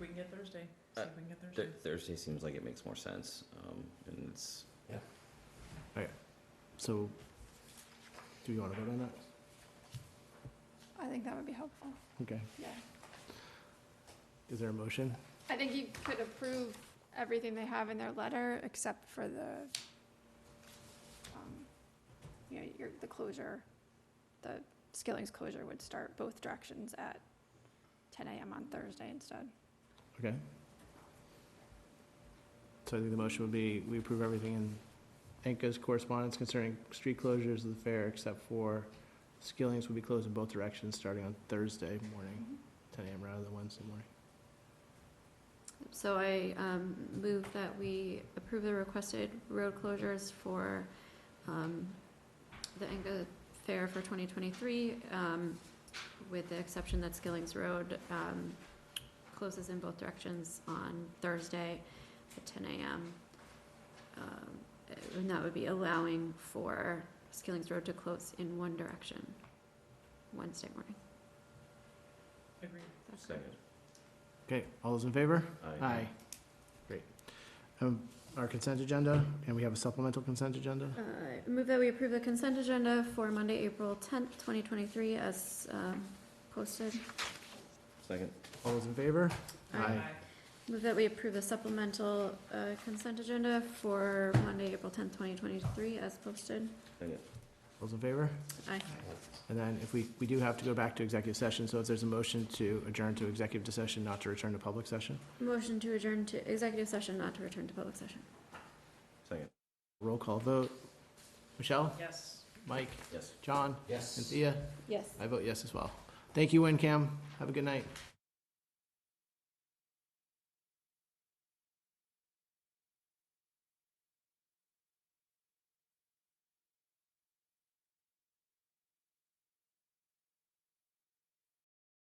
we can get Thursday, see Uh, if we can get Thursday. Th- Thursday seems like it makes more sense, um, and it's, So, do we want to vote on that? I think that would be helpful, Okay, yeah. is there a motion? I think you could approve everything they have in their letter, except for the, um, you know, your, the closure, the Skilling's closure would start both directions at ten AM on Thursday instead. Okay. So I think the motion would be, we approve everything in Anka's correspondence concerning street closures of the fair except for Skilling's will be closed in both directions starting on Thursday morning, Mm-hmm. ten AM rather than Wednesday morning. So I um, move that we approve the requested road closures for um, the Enga Fair for 2023, um, with the exception that Skilling's Road um, closes in both directions on Thursday at 10 a.m. Um, And that would be allowing for Skilling's Road to close in one direction Wednesday morning. Agreed. That's correct. second. Okay, all those in favor? I- Aye. Great. Um, our consent agenda, and we have a supplemental consent agenda? Uh, Move that we approve the consent agenda for Monday, April tenth, twenty twenty-three as um, posted. Second, All those in favor? Aye. Move that we approve the supplemental uh, consent agenda for Monday, April tenth, twenty twenty-three as posted. second, All those in favor? Aye. And then if we, we do have to go back to executive session, so if there's a motion to adjourn to executive session, not to return to public session? Motion to adjourn to executive session, not to return to public session. second, Roll call vote. Michelle? Yes. Mike? yes. John? Yes. Cynthia? Yes. I vote yes as well. Thank you, WinCam. Have a good night.